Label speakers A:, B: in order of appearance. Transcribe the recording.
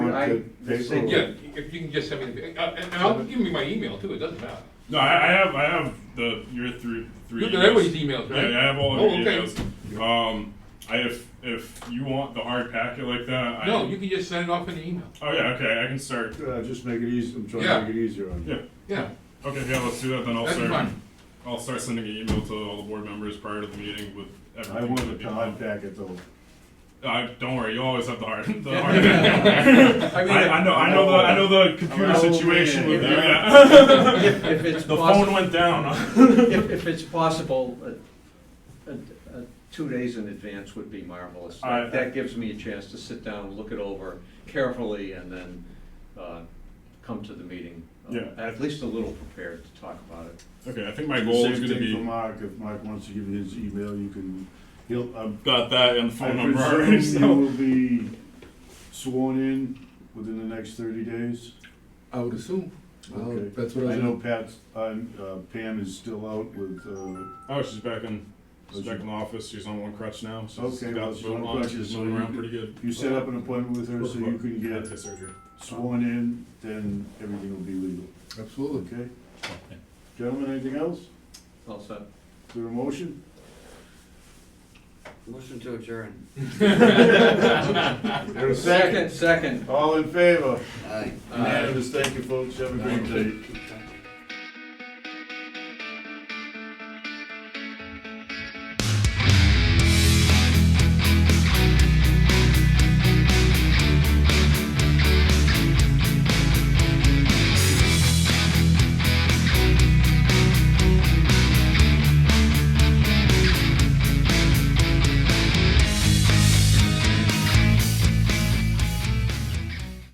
A: want
B: I
A: the paper?
B: think-
A: or-
C: Yeah, if you can just send me, the- uh, and I'll give me my email too, it doesn't matter.
D: No, I, I have I have the your three three.
C: You got
D: emails.
C: everybody's emails, right?
D: Yeah, I have all of
C: Oh,
D: your
C: okay.
D: emails. Um, I if if you want the hard packet like that,
C: No,
D: I,
C: you can just send it off in the email,
D: Oh yeah, okay, I can start.
A: Uh, just make it easy, I'm trying
C: Yeah.
A: to make it easier on you.
D: Yeah.
C: yeah,
D: Okay, yeah, let's do that. Then I'll
C: that's
D: start.
C: fine.
D: I'll start sending an email to all the board members prior to the meeting with everything.
A: I want
D: that'd
A: the
D: be
A: hard
D: done.
A: packet though.
D: I, Uh, don't worry, you always have the hard. The hard I,
C: I mean,
D: I know, I know the, I know the
B: I'm
D: computer
B: an old
D: situation
B: man.
D: with you.
B: If- If,
D: Yeah.
B: if it's
D: the phone
B: possible,
D: went down.
B: if, if it's possible, uh, uh, uh, two days in advance would be marvelous.
D: All right.
B: That gives me a chance to sit down, look it over carefully, and then, uh, come to the meeting. uh,
D: Yeah.
B: At least a little prepared to talk about it.
D: okay, I think my goal
A: Same
D: is going to
A: thing
D: be
A: for Mark, if Mark wants to give you his email, you can, he'll, um,
D: got that and the phone
A: I
D: number already.
A: presume you
D: So.
A: will be sworn in within the next thirty days?
E: I would assume. Well,
A: Okay.
E: That's what I
A: I
E: was.
A: know Pat's, uh, uh, Pam is still out with, uh,
D: Oh, she's back in. She's
A: Was
D: back
A: she-
D: in the office. She's on one crutch now. She's
A: Okay,
D: got
A: well,
D: the
A: she's on
D: boot
A: a
D: on.
A: crutch,
D: She's
A: so
D: moving
A: you-
D: around pretty good.
A: you set up an appointment with her so you can
D: Had
A: get
D: his surgery.
A: sworn in, then everything will be legal,
E: Absolutely.
A: okay? Gentlemen, anything else?
B: Also,
A: Is there a motion?
F: Motion to adjourn.
A: There's
B: second, second.
A: All in favor?
F: Aye.
B: uh,
A: Unanimous, thank you folks, have a great day.